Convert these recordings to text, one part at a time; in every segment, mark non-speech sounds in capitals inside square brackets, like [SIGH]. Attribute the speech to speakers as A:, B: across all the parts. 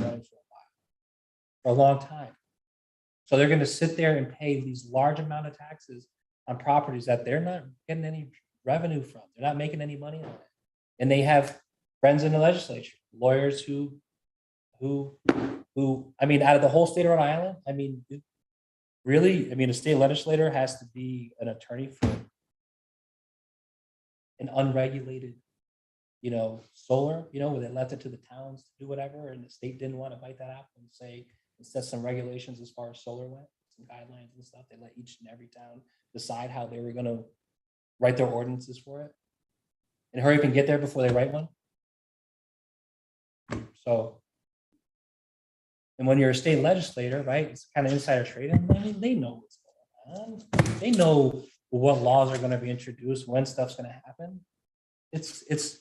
A: them for a while, for a long time. So they're gonna sit there and pay these large amount of taxes on properties that they're not getting any revenue from. They're not making any money on it. And they have friends in the legislature, lawyers who, who, who, I mean, out of the whole state of Rhode Island, I mean, it- really, I mean, a state legislator has to be an attorney for an unregulated, you know, solar, you know, where they left it to the towns to do whatever, and the state didn't want to bite that apple and say, and set some regulations as far as solar went, some guidelines and stuff. They let each and every town decide how they were gonna write their ordinances for it. And hurry up and get there before they write one. So. And when you're a state legislator, right, it's kind of insider trading, I mean, they know what's going on. They know what laws are gonna be introduced, when stuff's gonna happen. It's, it's.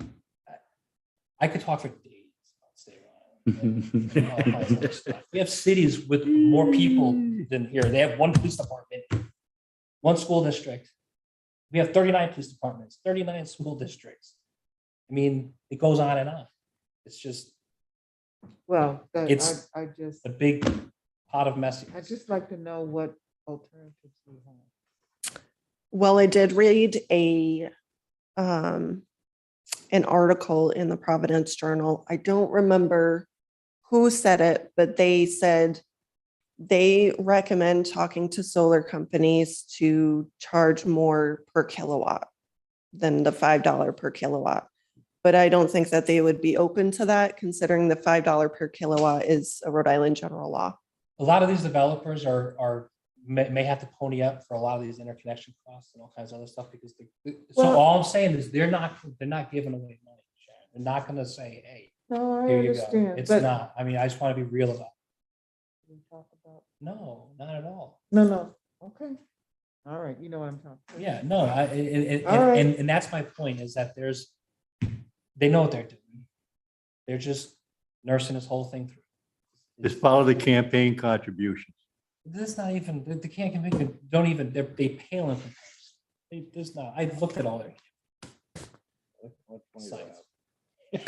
A: I- I could talk for days about state
B: [LAUGHS]
A: law. and- and all kinds of other stuff. We have cities with more people than here. They have one police department, one school district. We have thirty-nine police departments, thirty-nine school districts. I mean, it goes on and on. It's just
C: Well, that-
A: It's-
C: I, I just,
A: a big pot of mess.
C: I'd just like to know what alternatives we have.
D: Well, I did read a, um, an article in the Providence Journal. I don't remember who said it, but they said they recommend talking to solar companies to charge more per kilowatt than the five dollar per kilowatt. But I don't think that they would be open to that considering the five dollar per kilowatt is a Rhode Island general law.
A: A lot of these developers are, are, may, may have to pony up for a lot of these interconnection costs and all kinds of other stuff because the, so
D: Well-
A: all I'm saying is they're not, they're not giving away money. Sharon. They're not gonna say, hey,
C: No, I
A: here you go.
C: understand,
A: It's
C: but.
A: not, I mean, I just want to be real about it.
C: we talk about-
A: No, not at all.
C: No, no, okay. All right, you know what I'm talking. about.
A: Yeah, no, I, and, and-
C: All right.
A: and, and that's my point is that there's, they know what they're doing. They're just nursing this whole thing through.
B: Just follow the campaign contributions.
A: That's not even, they- they can't convict them, don't even, they're, they pale in comparison. They, there's not, I looked at all their. sites.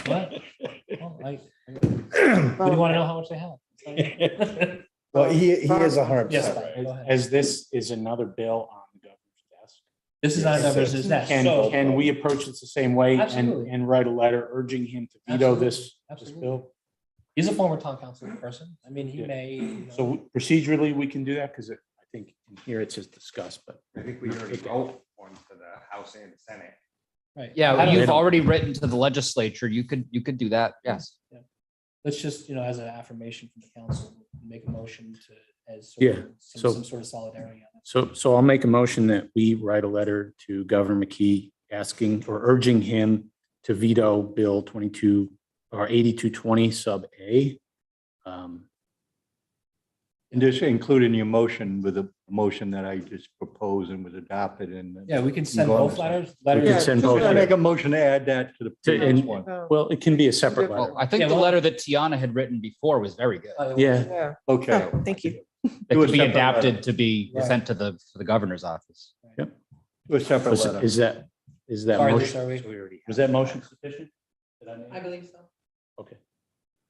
A: What? Well, I- But you want to know how much they
E: [LAUGHS]
A: have?
F: Well, he, he is a hundred
A: Yes,
F: percent.
A: Bob, go ahead.
E: As this is another bill on the governor's
A: This is not, this is that.
E: desk, can,
A: So-
E: can we approach this the same way and,
A: Absolutely.
E: and write a letter urging him to veto this, this
A: Absolutely.
E: bill?
A: He's a former town council person. I mean, he
E: Yeah.
A: may. you know-
E: So procedurally, we can do that because I think in here it says discuss, but
G: I think we already wrote one for the House and the Senate.
A: Right. I
H: Yeah,
A: don't
H: you've
A: know.
H: already written to the legislature. You could, you could do that. Yes.
A: Let's just, you know, as an affirmation from the council, make a motion to, as. sort
E: Yeah,
A: of
E: so-
A: Some, some sort of solidarity on it.
E: So, so I'll make a motion that we write a letter to Governor McKee asking or urging him to veto Bill twenty-two or eighty-two twenty sub A. Um,
B: And just include in your motion with the motion that I just proposed and was adopted and.
A: Yeah, we can send
B: Go on.
A: both letters,
E: We
A: letters.
E: can
C: Yeah,
E: send
C: just
E: both.
B: I make
E: letters.
B: a motion to add that to the
E: To-
B: previous
E: and-
B: one.
C: No,
E: Well, it can be a separate letter.
H: Well, I think
A: Yeah,
H: the
A: well-
H: letter that Tiana had written before was very good.
A: Uh,
E: Yeah.
C: Yeah,
B: Okay.
D: Oh, Thank you.
H: That
B: Do a
H: could
B: separate
H: be
B: letter.
H: adapted to be
A: Right.
H: sent to the, to the governor's office.
B: To a separate
E: Was-
B: letter.
E: Is that, is that
A: Sorry,
E: motion,
A: Lisa, are we-
E: was that motion sufficient? Did I make-
C: believe so.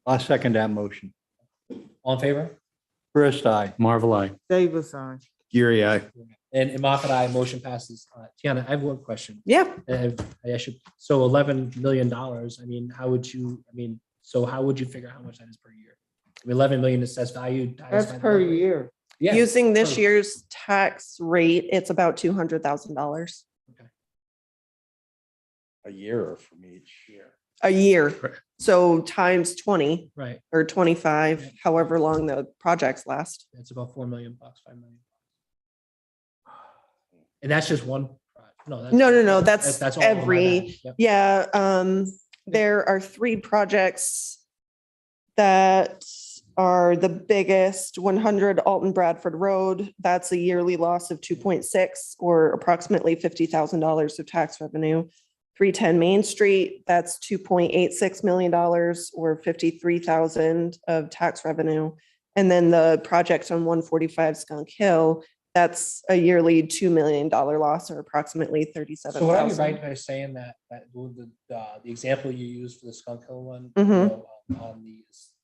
B: I'll second that motion.
A: All in favor?
B: First, I,
E: Marvel, I.
C: Davis, aye.
B: Geary, I.
A: And and Moffat, I, motion passes. Uh, Tiana, I have one question.
D: Yeah.
A: And I should, so eleven million dollars, I mean, how would you, I mean, so how would you figure out how much that is per year? I mean, Eleven million assessed value. times
C: That's
A: by the
C: per
A: number-
C: year.
A: Yeah,
D: Using this
A: Sure.
D: year's tax rate, it's about two hundred thousand dollars
G: A year from each year.
D: a year.
E: Right.
D: So times twenty
A: right.
D: or twenty-five, however long the projects last.
A: It's about four million bucks, five million. And that's just one, project. no. that's-
D: No, no, no, that's
A: that's all on my
D: every-
A: bad. Yep.
D: Yeah, um, there are three projects that are the biggest, one hundred Alton Bradford Road. That's a yearly loss of two point six or approximately fifty thousand dollars of tax revenue. Three ten Main Street, that's two point eight six million dollars or fifty-three thousand of tax revenue. And then the project on one forty-five Skunk Hill, that's a yearly two million dollar loss or approximately thirty-seven
A: So would I be
D: thousand.
A: right by saying that, that the, the, uh, the example you used for the Skunk Hill one? you
D: Mhm.
A: know, On um, the